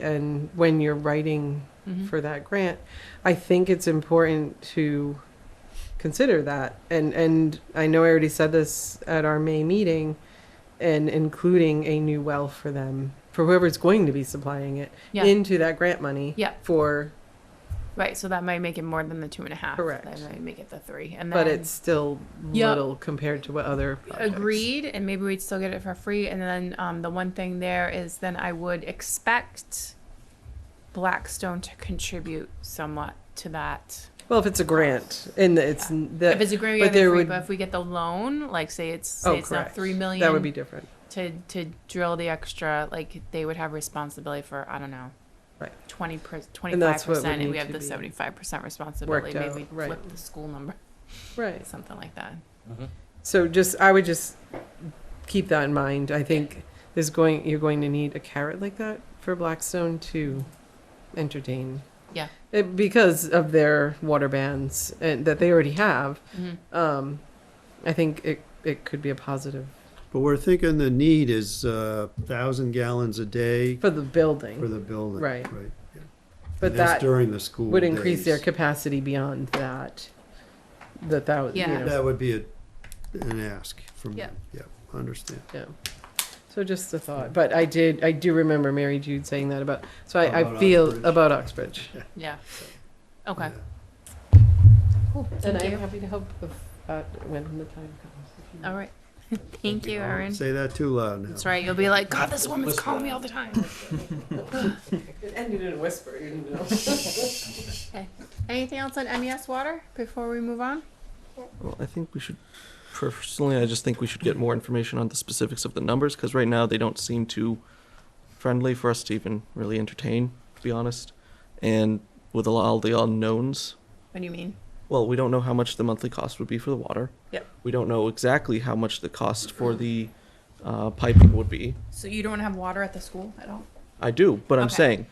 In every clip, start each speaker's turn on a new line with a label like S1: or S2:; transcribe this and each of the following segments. S1: and when you're writing
S2: Mm-hmm.
S1: for that grant, I think it's important to consider that. And and I know I already said this at our May meeting, and including a new well for them for whoever's going to be supplying it
S2: Yeah.
S1: into that grant money.
S2: Yeah.
S1: For
S2: Right, so that might make it more than the two and a half.
S1: Correct.
S2: That might make it the three, and then
S1: but it's still
S2: Yeah.
S1: little compared to what other projects.
S2: agreed, and maybe we'd still get it for free. And then um, the one thing there is, then I would expect Blackstone to contribute somewhat to that.
S1: Well, if it's a grant and it's
S2: Yeah.
S1: that
S2: if it's a grant,
S1: but
S2: we get it
S1: there
S2: free,
S1: would-
S2: but if we get the loan, like say it's say
S1: oh
S2: it's
S1: correct
S2: not three million,
S1: that would be different.
S2: to to drill the extra. Like they would have responsibility for I don't know.
S1: Right.
S2: 20 per, 25%
S1: And that's what would
S2: and
S1: need
S2: we have
S1: to
S2: the
S1: be
S2: 75% responsibility maybe
S1: out,
S2: we
S1: right.
S2: flip the school number
S1: Right.
S2: something like that
S1: So just, I would just keep that in mind. I think there's going, you're going to need a carrot like that for Blackstone to entertain.
S2: Yeah.
S1: It- because of their water bans and that they already have,
S2: Mhm.
S1: um, I think it, it could be a positive
S3: But we're thinking the need is uh thousand gallons a day
S1: for the
S3: for
S1: building,
S3: the building.
S1: Right.
S3: Right. yeah.
S1: but
S3: And that's
S1: that
S3: During the school
S1: would increase their
S3: days.
S1: capacity beyond that. That that would, you
S2: Yeah.
S1: know,
S3: That would be a, an ask from,
S2: Yeah.
S3: them. yeah, I understand.
S1: yeah. So just a thought, but I did, I do remember Mary Jude saying that about, so I, I
S3: About
S1: feel
S3: Oxbridge.
S1: about Oxbridge.
S2: Yeah. Okay.
S3: Yeah.
S2: Cool.
S1: And
S2: Thank
S1: I'm
S2: you.
S1: happy to help if, uh, when the time comes. if you need.
S2: All right. Thank you, Erin.
S3: Say that too loud now.
S2: That's right. You'll be like, God, this woman's calling me all the time.
S1: It ended in a whisper, you know.
S2: Anything else on MES water before we move on?
S4: Well, I think we should, personally, I just think we should get more information on the specifics of the numbers, because right now they don't seem too friendly for us to even really entertain, to be honest. And with a lot- all the unknowns,
S2: What do you mean?
S4: well, we don't know how much the monthly cost would be for the water.
S2: Yep.
S4: We don't know exactly how much the cost for the uh, piping would be.
S2: So you don't have water at the school at all?
S4: I do, but I'm
S2: Okay.
S4: saying,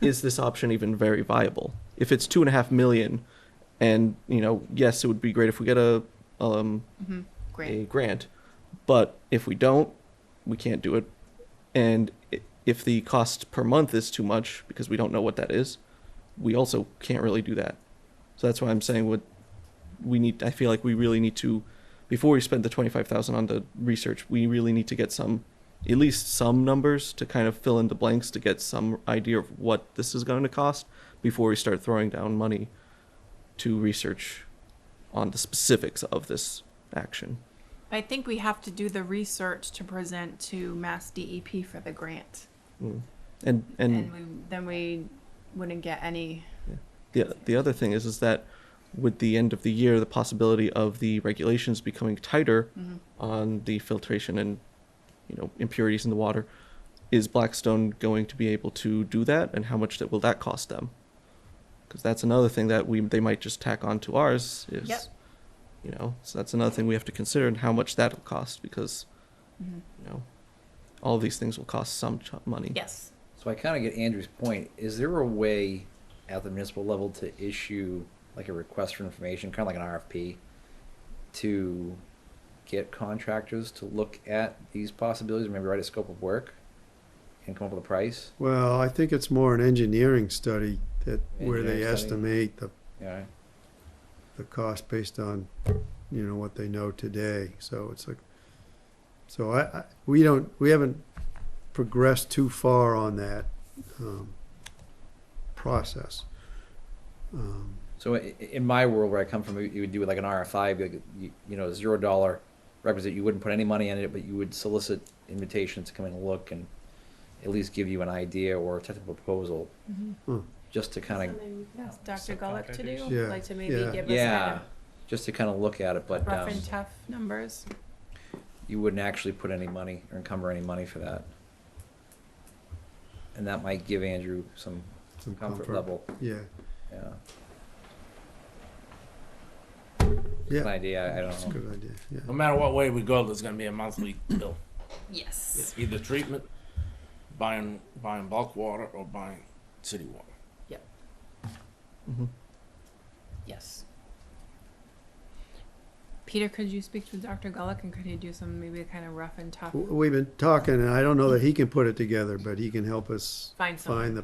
S4: is this option even very viable? If it's two and a half million, and you know, yes, it would be great if we get a um,
S2: Mm-hmm. Great.
S4: a grant. But if we don't, we can't do it. And i- if the cost per month is too much because we don't know what that is, we also can't really do that. So that's why I'm saying what we need. I feel like we really need to, before we spend the twenty five thousand on the research, we really need to get some, at least some numbers to kind of fill in the blanks to get some idea of what this is going to cost before we start throwing down money to research on the specifics of this action.
S2: I think we have to do the research to present to Mass DEP for the grant.
S4: And
S2: And
S4: and
S2: we, then we wouldn't get any.
S4: the the other thing is is that with the end of the year, the possibility of the regulations becoming tighter
S2: mm-hmm.
S4: on the filtration and you know impurities in the water, is Blackstone going to be able to do that, and how much that will that cost them? Because that's another thing that we they might just tack on to ours is,
S2: Yep.
S4: you know, so that's another thing we have to consider and how much that'll cost because,
S2: Mm-hmm.
S4: you know, all these things will cost some ch- money.
S2: Yes.
S5: So I kind of get Andrew's point. Is there a way at the municipal level to issue like a request for information, kind of like an RFP, to get contractors to look at these possibilities, or maybe write a scope of work and come up with a price?
S3: Well, I think it's more an engineering study that, where they
S5: Engineering study.
S3: estimate the,
S5: Yeah.
S3: the cost based on, you know, what they know today. So it's like, so I, I, we don't, we haven't progressed too far on that, um, process. Um,
S5: So i- i- in my world where I come from, you would do like an RFI, be like you, you know, zero dollar requisite. You wouldn't put any money in it, but you would solicit invitations to come in and look and at least give you an idea or a technical proposal,
S2: Mm-hmm.
S3: Hmm.
S5: just to kind of
S2: Ask Dr. Gulick to do,
S3: Yeah,
S2: like to maybe
S3: yeah.
S2: give
S5: Yeah,
S2: us
S5: just to kind of look at it, but
S2: kind of rough
S5: um,
S2: and tough numbers.
S5: you wouldn't actually put any money or encumber any money for that. And that might give Andrew some
S3: some
S5: comfort level,
S3: Yeah,
S5: yeah.
S3: yeah,
S5: An idea, I
S3: that's a
S5: don't know.
S3: good idea, yeah.
S6: No matter what way we go, there's gonna be a monthly bill.
S2: Yes.
S6: It's either treatment, buying, buying bulk water or buying city water.
S4: Mm-hmm.
S2: Yes. Peter, could you speak to Dr. Gulick and could he do some maybe kind of rough and tough?
S3: W- We've been talking, and I don't know that he can put it together, but he can help us
S2: Find someone.
S3: find the